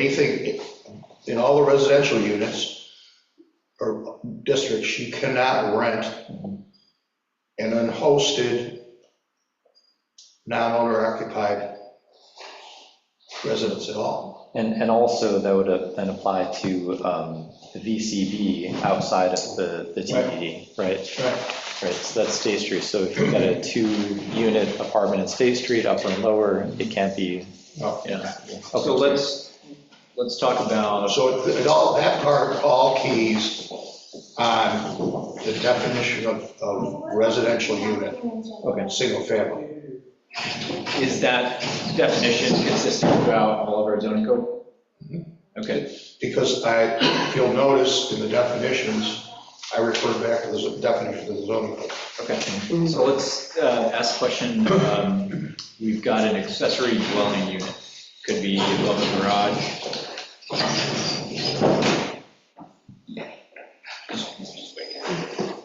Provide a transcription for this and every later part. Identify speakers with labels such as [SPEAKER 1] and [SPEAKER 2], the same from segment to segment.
[SPEAKER 1] anything, in all the residential units or districts, you cannot rent an unhosted, non-owner occupied residence at all.
[SPEAKER 2] And, and also that would uh, then apply to um, the VCB outside of the, the TBD, right?
[SPEAKER 1] Right.
[SPEAKER 2] Right, so that's State Street. So if you've got a two-unit apartment in State Street, upper and lower, it can't be.
[SPEAKER 1] Oh.
[SPEAKER 3] Yeah. So let's, let's talk about,
[SPEAKER 1] So it it all, that part, all keys on the definition of, of residential unit,
[SPEAKER 2] Okay.
[SPEAKER 1] single family.
[SPEAKER 3] is that definition consistent throughout all of our zoning code? Okay,
[SPEAKER 1] Because I, if you'll notice in the definitions, I refer back to the definition of the zoning code.
[SPEAKER 3] okay. So let's uh, ask question, um, we've got an accessory dwelling unit, could be above a garage.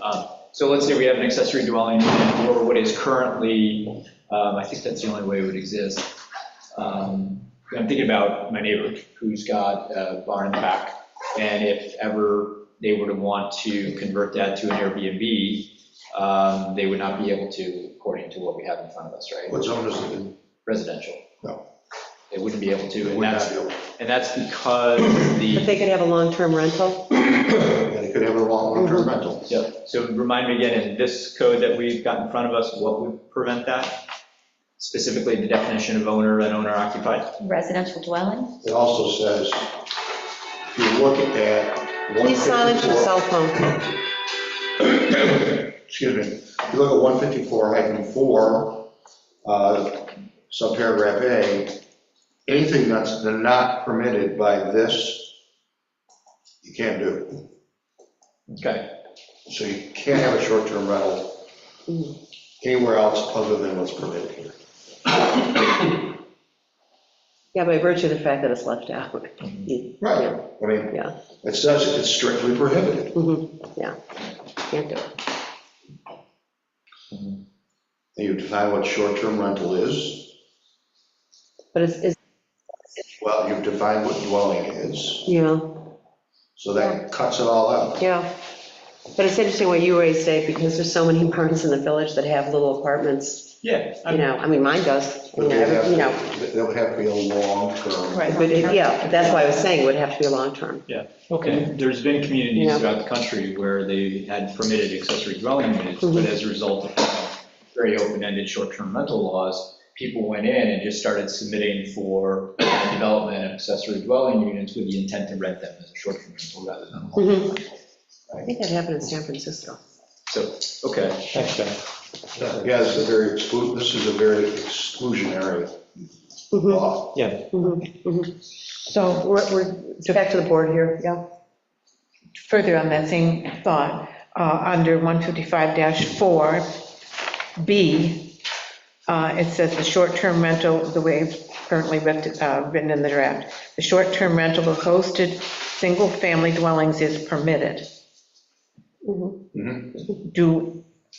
[SPEAKER 3] Um, So let's say we have an accessory dwelling unit, or what is currently, um, I think that's the only way it would exist. Um, I'm thinking about my neighbor who's got a barn in the back, and if ever they were to want to convert that to an Airbnb, um, they would not be able to, according to what we have in front of us, right?
[SPEAKER 1] What zone is it in?
[SPEAKER 3] Residential.
[SPEAKER 1] No.
[SPEAKER 3] They wouldn't be able to, and
[SPEAKER 1] Would not
[SPEAKER 3] that's,
[SPEAKER 1] be able-
[SPEAKER 3] and that's because
[SPEAKER 4] But
[SPEAKER 3] the,
[SPEAKER 4] they could have a long-term rental?
[SPEAKER 1] Yeah, they could have a long-term rental.
[SPEAKER 3] Yep. so remind me again, in this code that we've got in front of us, what would prevent that? Specifically, the definition of owner and owner occupied?
[SPEAKER 5] Residential dwelling?
[SPEAKER 1] It also says, if you look at
[SPEAKER 4] Please silence your
[SPEAKER 1] 154
[SPEAKER 4] cell phone.
[SPEAKER 1] excuse me, if you look at 154 hyphen 4, uh, subparagraph A, anything that's not permitted by this, you can't do.
[SPEAKER 3] Okay,
[SPEAKER 1] So you can't have a short-term rental
[SPEAKER 4] Mm-hmm.
[SPEAKER 1] anywhere else other than what's permitted here.
[SPEAKER 4] Yeah, by virtue of the fact that it's left out. You
[SPEAKER 1] Right. I mean,
[SPEAKER 4] Yeah.
[SPEAKER 1] it says it's strictly prohibited.
[SPEAKER 4] Mm-hmm. Can't do it.
[SPEAKER 1] And You define what short-term rental is,
[SPEAKER 4] But it's, it's,
[SPEAKER 1] well, you've defined what dwelling is,
[SPEAKER 4] you know,
[SPEAKER 1] so that cuts it all out.
[SPEAKER 4] yeah. But it's interesting what you raised, Dave, because there's so many barns in the village that have little apartments,
[SPEAKER 3] yeah,
[SPEAKER 4] you
[SPEAKER 3] I'm-
[SPEAKER 4] know, I mean, mine does, you
[SPEAKER 1] But
[SPEAKER 4] know,
[SPEAKER 1] they have,
[SPEAKER 4] every- you know.
[SPEAKER 1] to- that would have to be a long-term.
[SPEAKER 4] But it- yeah, that's why I was saying it would have to be a long-term.
[SPEAKER 3] okay, there's been communities
[SPEAKER 4] Yeah.
[SPEAKER 3] throughout the country where they had permitted accessory dwelling units, but
[SPEAKER 4] Mhm.
[SPEAKER 3] as a result of having very open-ended short-term rental laws, people went in and just started submitting for uh, development of accessory dwelling units with the intent to rent them as a short-term rental rather than a long-term
[SPEAKER 4] Mhm.
[SPEAKER 3] rental.
[SPEAKER 4] I think that happened in San Francisco.
[SPEAKER 3] So, okay,
[SPEAKER 2] Thanks, Jeff.
[SPEAKER 1] Yeah, this is a very exclu, this is a very exclusionary
[SPEAKER 4] Mhm,
[SPEAKER 1] law.
[SPEAKER 4] mhm, mhm. So we're, we're back to the board here, yeah?
[SPEAKER 6] further on that same thought, uh, under 155-4B, uh, it says the short-term rental, the way it's currently writ- uh, written in the draft, the short-term rental of hosted single-family dwellings is permitted.
[SPEAKER 4] Mhm.
[SPEAKER 1] Mm-hmm.
[SPEAKER 6] Do,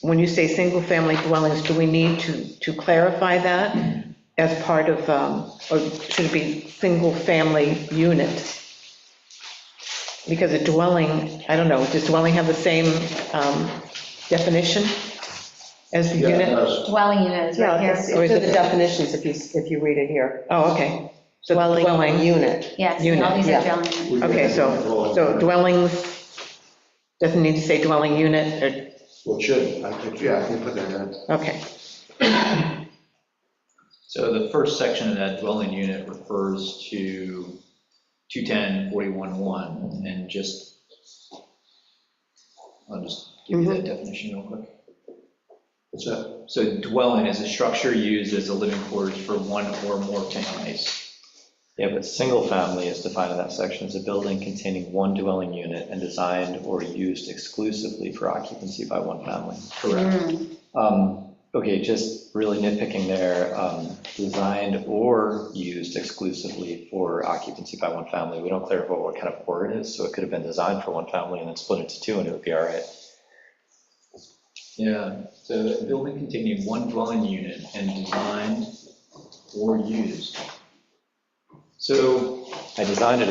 [SPEAKER 6] when you say single-family dwellings, do we need to, to clarify that as part of, um, or should it be single-family unit? Because a dwelling, I don't know, does dwelling have the same um, definition as the
[SPEAKER 1] Yeah, it
[SPEAKER 6] unit?
[SPEAKER 1] does.
[SPEAKER 5] Dwelling unit is right
[SPEAKER 4] Yeah,
[SPEAKER 5] here.
[SPEAKER 4] it's
[SPEAKER 6] Or
[SPEAKER 4] it's
[SPEAKER 6] is
[SPEAKER 4] in
[SPEAKER 6] it-
[SPEAKER 4] the definitions if you, if you read it here.
[SPEAKER 6] Oh, okay. So
[SPEAKER 4] Dwelling
[SPEAKER 6] dwelling,
[SPEAKER 4] unit.
[SPEAKER 5] Yes,
[SPEAKER 6] unit,
[SPEAKER 5] all these are
[SPEAKER 4] yeah.
[SPEAKER 5] dwelling units.
[SPEAKER 6] okay, so, so dwellings, doesn't need to say dwelling unit,
[SPEAKER 1] Well, it should, I think, yeah, I can put that in.
[SPEAKER 6] or, okay.
[SPEAKER 3] so the first section of that dwelling unit refers to 210-41-1 and just, I'll just give you that definition real quick.
[SPEAKER 1] What's that?
[SPEAKER 3] So dwelling is a structure used as a living quarters for one or more families.
[SPEAKER 2] Yeah, but single family is defined in that section as a building containing one dwelling unit and designed or used exclusively for occupancy by one family.
[SPEAKER 1] Mm.
[SPEAKER 3] Correct.
[SPEAKER 2] Um, Okay, just really nitpicking there, um, designed or used exclusively for occupancy by one family. We don't clarify what kind of or it is, so it could have been designed for one family and then split into two and it would be all right.
[SPEAKER 3] Yeah, so a building containing one dwelling unit and designed or used. So
[SPEAKER 2] I designed it